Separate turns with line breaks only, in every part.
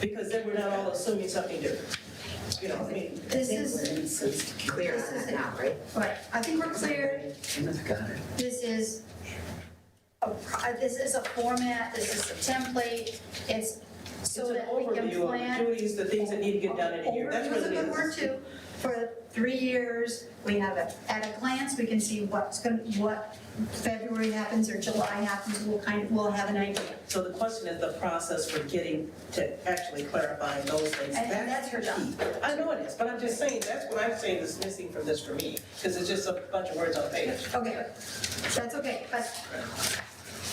because then we're not all assuming something different. You know, I mean,
This is,
Clear on that now, right?
right, I think we're clear. This is, a pro- this is a format, this is a template, it's
it's
so
an
that we can
overview of
plan.
the duties, the things that need to get done in a year. That's
Overview is
really
a good
it
word
is.
too. For three years, we have it, at a glance, we can see what's going, to what February happens or July happens, we'll kind, of we'll have an idea.
So the question is the process for getting to actually clarifying those things.
And- and that's her job.
key. I know it is, but I'm just saying, that's what I'm saying is missing from this for me, because it's just a bunch of words on a page.
Okay, that's okay, but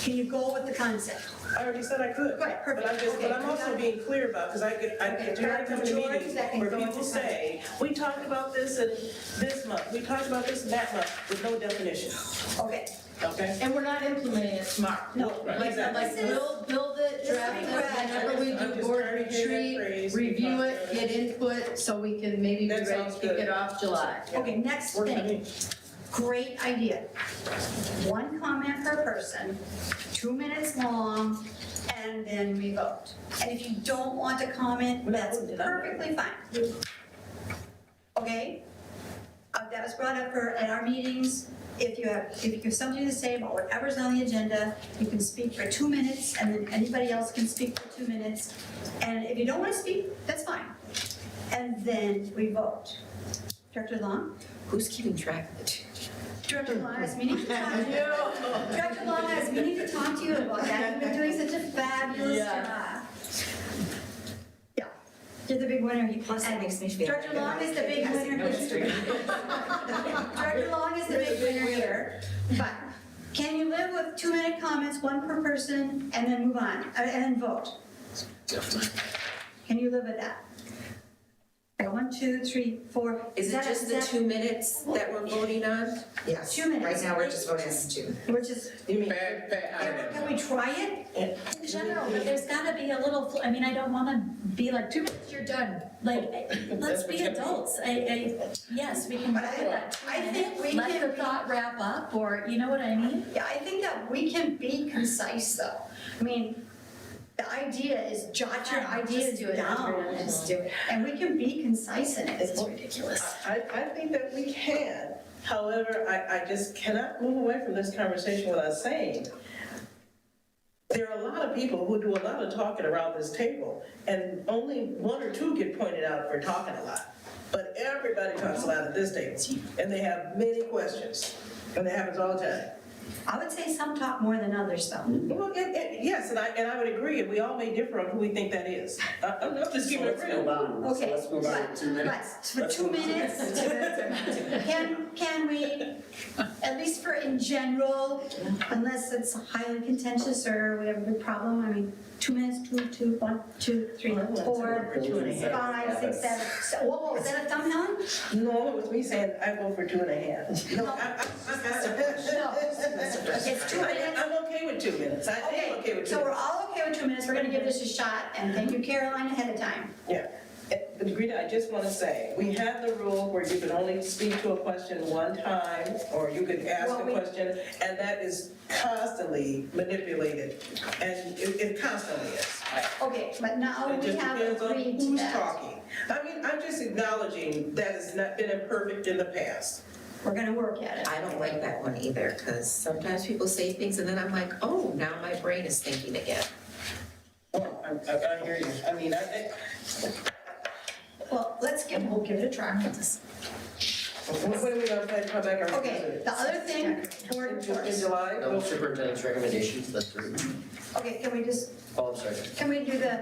can you go with the concept?
I already said I could.
Right, perfect.
But I'm just, but
Okay,
I'm also
done.
being clear about, because I could, I
Okay,
could, do not
back to
come to
George,
meetings
that can
where
go
people
into
say, we talked about this in this month, we talked about this in that month, with no definition,
Okay,
okay?
And we're not implementing it tomorrow.
No,
Like,
exactly.
like, we'll build it,
This is
draft it,
correct.
whenever we
I'm
do
just
board
tired of hearing that
retreat,
phrase.
review it, get input, so we can maybe be
That
ready to
sounds
kick
good.
it off July.
okay, next
Works for
thing.
me.
Great idea. One comment per person, two minutes long, and then we vote. And if you don't want to comment, that's perfectly fine. Okay? Uh, That was brought up for, at our meetings, if you have, if you have something to say about whatever's on the agenda, you can speak for two minutes, and then anybody else can speak for two minutes. And if you don't want to speak, that's fine. And then we vote. Director Long?
Who's keeping track of it?
Director Long, I was meaning to talk to you. Director Long, I was meaning to talk to you about that. You've been doing such a fabulous
Yeah.
job. Yeah, you're the big winner. You-
Plus, that makes me feel.
Director Long is the big winner. here. Director Long is the big winner here. But can you live with two-minute comments, one per person, and then move on, uh, and then vote? Can you live with that? Okay, One, two, three, four.
Is it
that-
just the
that-
two minutes that we're voting on?
Yes.
Two minutes.
Right now, we're just voting on two.
Which is
You mean,
Bad, bad
Can we try it?
In general, but there's gotta be a little, fl- I mean, I don't wanna be like, two minutes, you're done. Like, let's be adults, I, I, yes, we can
But
put
I-
that two
I think
minutes,
we
let
can
the
be-
thought wrap up, or, you know what I mean?
Yeah, I think that we can be concise though. I mean, the idea is jot your ideas
Just do it.
down.
Just do it.
And we can be concise in it.
It's ridiculous.
I, I think that we can. However, I, I just cannot move away from this conversation without saying, there are a lot of people who do a lot of talking around this table, and only one or two get pointed out for talking a lot. But everybody talks a lot at this table, and they have many questions, and that happens all the time.
I would say some talk more than others though.
Well, and, and, yes, and I, and I would agree, and we all may differ on who we think that is. I, I'm not just keeping it real.
Okay.
Let's move on to two
but-
minutes.
but for
Let's
two
move on to-
minutes, can, can we, at least for in general, unless it's highly contentious or we have a big problem, I mean, two minutes, two, two, one, two, three, four, five, six, seven, so, whoa, whoa, is that a thumbnail?
No, it was me saying, I go for two and a half. No, I,
No.
I.
It's two minutes.
I'm okay with two minutes, I am okay
Okay,
with two.
so we're all okay with two minutes, we're gonna give this a shot, and thank you Caroline ahead of time.
Yeah, Uh, but Rita, I just want to say, we had the rule where you could only speak to a question one time, or you could ask
Well,
a
we-
question, and that is constantly manipulated, and it, it constantly is.
Okay, but now
It
Oh, we
just
have
depends on
agreed to
who's
that.
talking. I mean, I'm just acknowledging that it's not been imperfect in the past.
We're gonna work at it.
I don't like that one either, because sometimes people say things and then I'm like, oh, now my brain is thinking again.
Well, Oh, I, I I hear you, I mean, I, I-
Well, let's give, we'll give it a try.
what what are we gonna play, come back our.
Okay, the other thing, board
In Ju- in
reports.
July?
No superintendent's recommendations, that's three.
Okay, can we just,
Oh, I'm sorry.
can we do the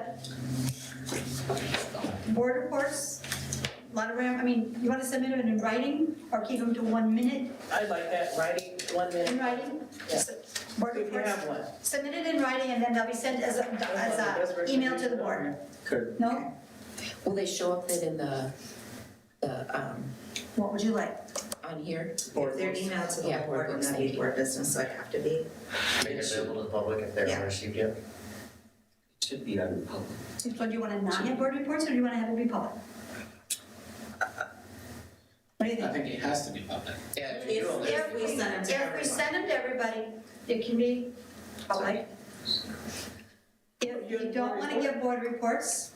board reports? A Lot of, ram- I mean, you wanna submit them in writing, or keep them to one minute
I like that, writing, one
in
minute,
writing?
Yeah.
Board
if you
reports,
have one.
submit it in writing, and then they'll be sent as a, as a email to the board.
Could,
No?
Will they show up then in the, the, um,
What would you like?
on here?
board
Their
members
email to the Yeah, whole board board, would members, not thank be you. board business, so it'd have to be.
make it available to the public if they
Yeah.
haven't received yet. Should be on public.
So do you want to not have board reports, or do you want to have it be public? What do you
I
think?
think it has to be public.
Yeah, if you do all
If,
that,
if we send them to
If we
everyone.
send them to everybody, it can be public. If you don't want to give board reports,